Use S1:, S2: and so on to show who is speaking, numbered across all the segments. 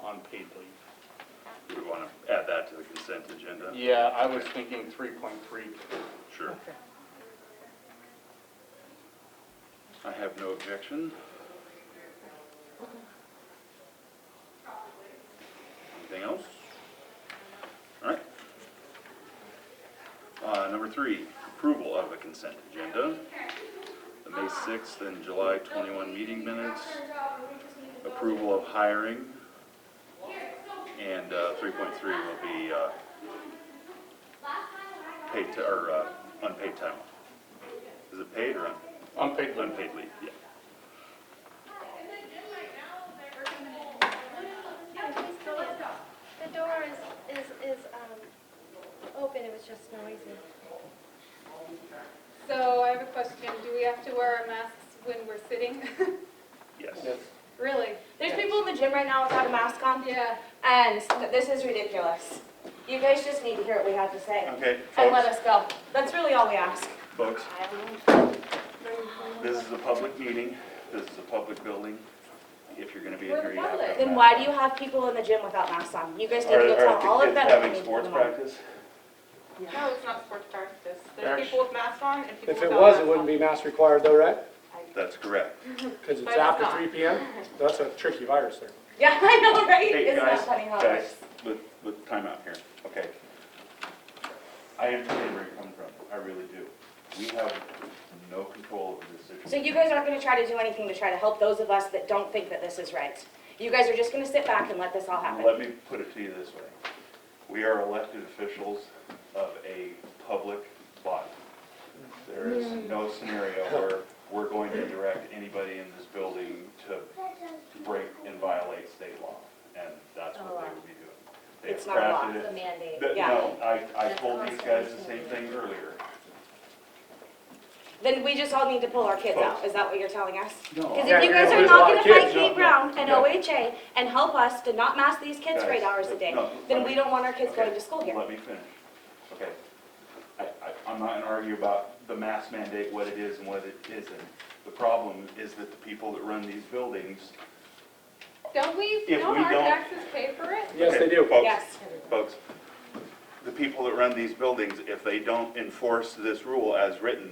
S1: on paid leave.
S2: Do we want to add that to the consent agenda?
S1: Yeah, I was thinking three point three.
S2: Sure. I have no objection. Anything else? All right. Uh, Number three, approval of the consent agenda. The May 6th and July 21 meeting minutes, approval of hiring, and uh, 3.3 will be uh, paid, ti- or uh, unpaid time off. Is it paid or unpaid?
S1: Unpaid leave.
S2: Unpaid leave, yeah.
S3: The door is, is, is, um, open, it was just noisy.
S4: So I have a question, do we have to wear our masks when we're sitting?
S2: Yes.
S1: Yes.
S4: Really?
S5: There's people in the gym right now without a mask on,
S4: Yeah,
S5: and this is ridiculous. You guys just need to hear what we have to say
S2: Okay,
S5: and let
S2: folks,
S5: us go. That's really all we ask.
S2: folks, this is a public meeting, this is a public building. If you're gonna be in here, you have to. have masks.
S5: Then why do you have people in the gym without masks on? You guys need to
S2: Are-
S5: go tell all
S2: Are the
S5: of them.
S2: kids having sports practice?
S4: no, it's not sports practice.
S1: Actually-
S4: There's people with masks on and people
S6: If it
S4: without
S6: was,
S4: masks on.
S6: it wouldn't be mask required though, right?
S2: That's correct.
S6: Because it's
S4: But it's
S6: after
S4: not.
S6: three PM? That's a tricky virus there.
S5: Yeah, I know, right?
S2: Hey,
S5: Isn't
S2: guys,
S5: that funny how it
S2: guys,
S5: works?
S2: with, with timeout here, okay. I understand where you're coming from, I really do. We have no control over this
S5: So
S2: situation.
S5: you guys aren't gonna try to do anything to try to help those of us that don't think that this is right. You guys are just gonna sit back and let this all happen.
S2: Let me put it to you this way. We are elected officials of a public body. There is no scenario where we're going to direct anybody in this building to break and violate state law. And that's what they would be doing. They have
S5: Oh, It's not a law,
S2: crafted
S5: it's
S2: it.
S5: a mandate.
S2: But
S5: Yeah.
S2: No, I, I told these guys the same thing earlier.
S5: Then we just all need to pull our kids out, is that what you're telling us? Because
S6: Yeah,
S5: if you
S6: you're
S5: guys
S6: gonna
S5: are
S6: lose a
S5: not
S6: lot of
S5: gonna fight
S6: kids.
S5: Kate Brown and
S2: no.
S5: OHA and help us to not mask these kids for
S2: Guys,
S5: eight hours a day,
S2: no,
S5: then
S2: let
S5: we
S2: me-
S5: don't want our kids
S2: okay,
S5: going to school here.
S2: Let me finish. Okay. I, I, I'm not gonna argue about the mask mandate, what it is and what it isn't. The problem is that the people that run these buildings.
S4: Don't we,
S2: If
S4: don't
S2: we
S4: our
S2: don't-
S4: taxes pay for it?
S6: Yes, they
S2: Okay,
S6: do.
S2: folks,
S5: Yes.
S2: Folks, the people that run these buildings, if they don't enforce this rule as written,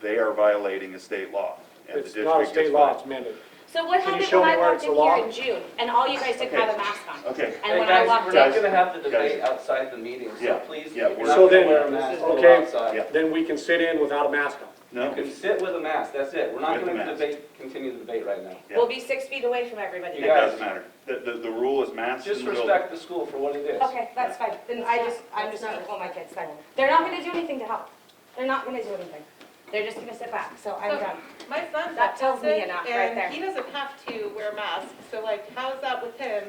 S2: they are violating a state law. and the
S6: It's
S2: district
S6: not a
S2: gets
S6: state law,
S2: fined.
S6: it's mandated.
S5: So what
S6: Can you
S5: happened
S6: show
S5: when
S6: me
S5: I
S6: where
S5: walked
S6: it's
S5: in
S6: a
S5: here
S6: law?
S5: in June and all you guys didn't
S2: Okay.
S5: have a mask on?
S2: Okay,
S5: And
S7: Hey,
S5: when I
S7: guys,
S5: walked
S7: we're
S5: in,
S7: not gonna have the debate
S2: Guys.
S7: outside the meeting,
S2: Yeah,
S7: so please,
S2: yeah,
S7: you're
S2: we're-
S7: not
S6: So
S7: gonna
S6: then-
S7: wear a mask while
S6: okay.
S7: we're outside.
S2: Yeah.
S6: Then we can sit in without a mask on.
S2: no,
S7: You can sit with a mask, that's it. We're not
S2: With a
S7: gonna
S2: mask.
S7: debate, continue the debate right now.
S2: yeah.
S5: we'll be six feet away from everybody.
S2: it
S7: guys-
S2: doesn't matter. The, the, the rule is masks in
S7: Just
S2: the building.
S7: respect the school for what it is.
S5: Okay, that's fine, then I just, I'm just gonna pull my kids then. They're not gonna do anything to help. They're not gonna do anything. They're just gonna sit back, so I'm
S4: So-
S5: done.
S4: My son's
S5: That tells me
S4: autistic,
S5: enough right there.
S4: and he doesn't have to wear a mask, so like, how's that with him?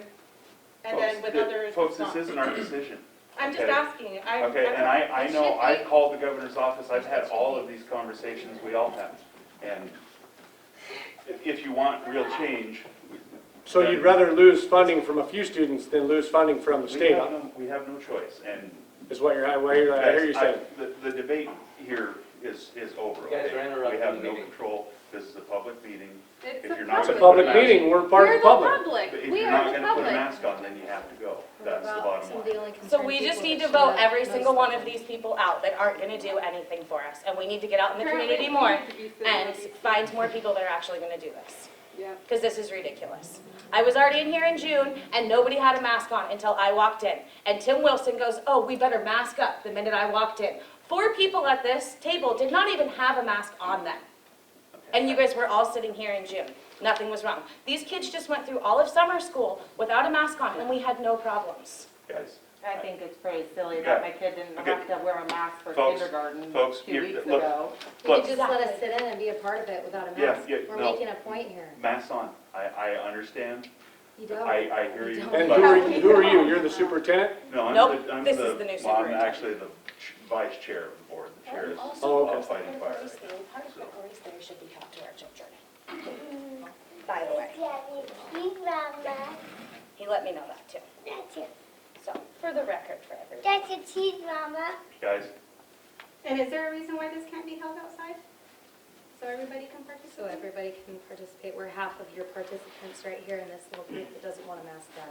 S4: And then
S2: Folks,
S4: with
S2: th-
S4: others,
S2: Folks,
S4: it's
S2: this isn't
S4: not.
S2: our decision.
S4: I'm just
S2: okay.
S4: asking, I.
S2: Okay,
S4: I'm
S2: and
S4: not-
S2: I, I
S4: it
S2: know,
S4: should
S2: I
S4: be-
S2: called the governor's office, I've had all of these conversations, we all have. And if- if you want real change,
S6: So you'd rather lose funding from a few students than lose funding from the
S2: we
S6: state,
S2: have no, we have no choice. And
S6: is what you're, what you're- I hear you
S2: Guys,
S6: saying.
S2: I- The, the debate here is, is over.
S7: You guys
S2: okay?
S7: are interrupting
S2: We have
S7: the
S2: no
S7: meeting.
S2: control, this is a public meeting.
S4: It's
S2: if
S4: a
S2: you're not
S6: It's a
S2: gonna
S4: public.
S2: put
S6: public meeting, we're part of
S4: We're
S6: the
S4: the
S6: public.
S2: But
S4: public,
S2: if
S4: we
S2: you're
S4: are
S2: not
S4: the
S2: gonna put a
S4: public.
S2: mask on, then you have to go. That's the bottom line.
S5: So we just need to vote every single one of these people out that aren't gonna do anything for us, and we need to get out in the
S4: Apparently
S5: community
S4: we
S5: more
S4: need to be sitting
S5: and
S4: with these-
S5: find more people that are actually gonna do this,
S4: Yeah.
S5: because this is ridiculous. I was already in here in June, and nobody had a mask on until I walked in, and Tim Wilson goes, oh, we better mask up the minute I walked in. Four people at this table did not even have a mask on them. And you guys were all sitting here in June. Nothing was wrong. These kids just went through all of summer school without a mask on, and we had no problems.
S2: Guys,
S8: I think it's pretty silly that my kid didn't have to wear a mask for
S2: Folks,
S8: kindergarten
S2: folks,
S8: two
S2: here-
S8: weeks
S2: look.
S8: ago.
S3: You
S2: look,
S3: could just let us sit in and be a part of it without a
S2: Yeah,
S3: mask.
S2: yeah,
S3: We're
S2: no.
S3: making a point here.
S2: masks on, I, I understand,
S3: You don't.
S2: I, I hear you.
S3: And
S6: And
S2: but-
S6: who are, you- who are you? You're the superintendent?
S2: No, I'm
S5: Nope,
S2: the, I'm
S5: this is the new
S2: the, well, I'm
S5: superintendent.
S2: actually the ch- vice chair of the board, the chair is
S6: Oh, okay.
S2: of fighting fire.
S5: Part of what Grace there should be help to our children. Mm-hmm. By the way, he let me know that too.
S9: That's it.
S5: So, for the record for everyone.
S9: That's a cheese, Mama.
S2: Guys,
S4: And is there a reason why this can't be held outside? So everybody can participate?
S3: So everybody can participate. We're half of your participants right here in this little group that doesn't want a mask on.